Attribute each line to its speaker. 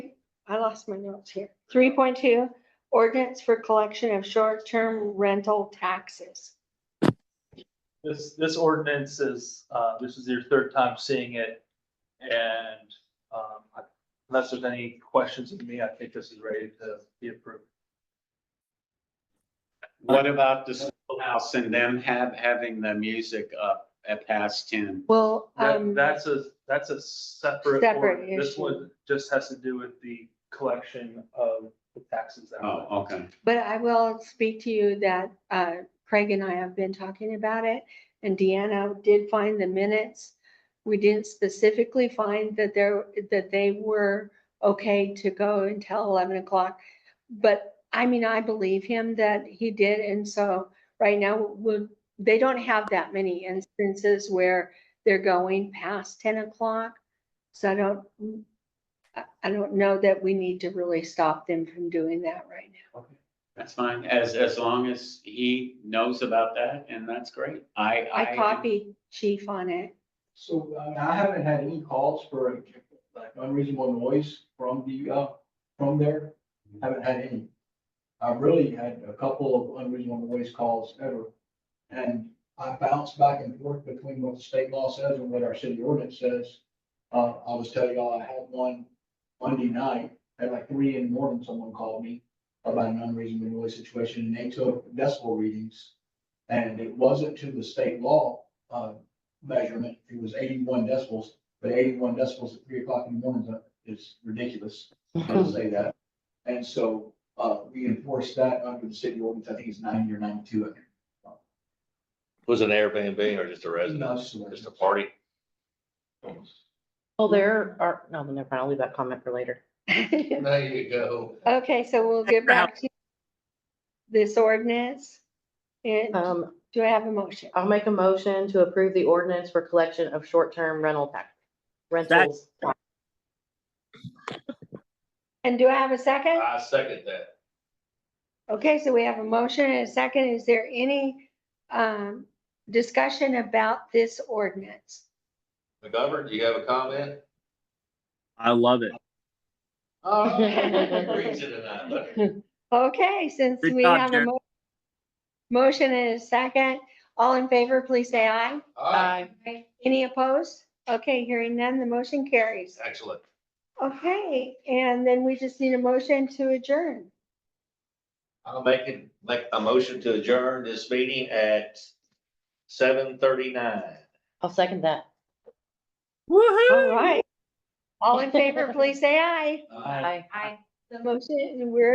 Speaker 1: lost my notes here. Three point two, ordinance for collection of short-term rental taxes.
Speaker 2: This, this ordinance is, uh, this is your third time seeing it. And, um, unless there's any questions of me, I think this is ready to be approved.
Speaker 3: What about the schoolhouse and them have, having the music up at past ten?
Speaker 1: Well,
Speaker 2: That,
Speaker 1: um,
Speaker 2: that's a, that's a separate,
Speaker 1: Separate
Speaker 2: order. this
Speaker 1: issue.
Speaker 2: one just has to do with the collection of the taxes. that were-
Speaker 3: Oh, okay.
Speaker 1: but I will speak to you that, uh, Craig and I have been talking about it. And Deanna did find the minutes. We didn't specifically find that there, that they were okay to go until eleven o'clock. But I mean, I believe him that he did, and so right now, would, they don't have that many instances where they're going past ten o'clock. So I don't, I, I don't know that we need to really stop them from doing that right now.
Speaker 3: That's fine. As, as long as he knows about that and that's great. I, I.
Speaker 1: I copied chief on it.
Speaker 4: So I mean, I haven't had any calls for like unreasonable noise from the, uh, from there. Haven't had any. I've really had a couple of unreasonable noise calls ever. And I bounce back and forth between what the state law says and what our city ordinance says. Uh, I was telling y'all, I had one Monday night at like three in the morning, someone called me about an unreasonable noise situation and they took decibel readings. And it wasn't to the state law, uh, measurement, it was eighty-one decibels, but eighty-one decibels at three o'clock in the morning is ridiculous, I'll say that. And so, uh, we enforce that under the city ordinance, I think it's ninety or ninety-two. I think.
Speaker 5: Was it an Airbnb or just a residence?
Speaker 4: Not
Speaker 5: Just a party?
Speaker 6: Well, there are, no, never mind, I'll leave that comment for later.
Speaker 7: There you go.
Speaker 1: Okay, so we'll get back to this ordinance. And
Speaker 6: Um,
Speaker 1: do I have a motion?
Speaker 6: I'll make a motion to approve the ordinance for collection of short-term rental tax. Rentals,
Speaker 1: And do I have a second?
Speaker 5: I second that.
Speaker 1: Okay, so we have a motion and a second. Is there any um, discussion about this ordinance?
Speaker 5: McGovern, do you have a comment?
Speaker 8: I love it.
Speaker 5: Oh, Reason tonight, look.
Speaker 1: Okay, since
Speaker 8: Good
Speaker 1: we
Speaker 8: job,
Speaker 1: have a
Speaker 8: Jared.
Speaker 1: mo- motion and a second, all in favor, please say aye.
Speaker 5: All right,
Speaker 1: Any opposed? Okay, hearing none, the motion carries.
Speaker 5: excellent.
Speaker 1: Okay, and then we just need a motion to adjourn.
Speaker 5: I'll make it, make a motion to adjourn this meeting at seven thirty-nine.
Speaker 6: I'll second that.
Speaker 1: All right. All in favor, please say aye.
Speaker 6: Aye.
Speaker 1: Aye. The motion, we're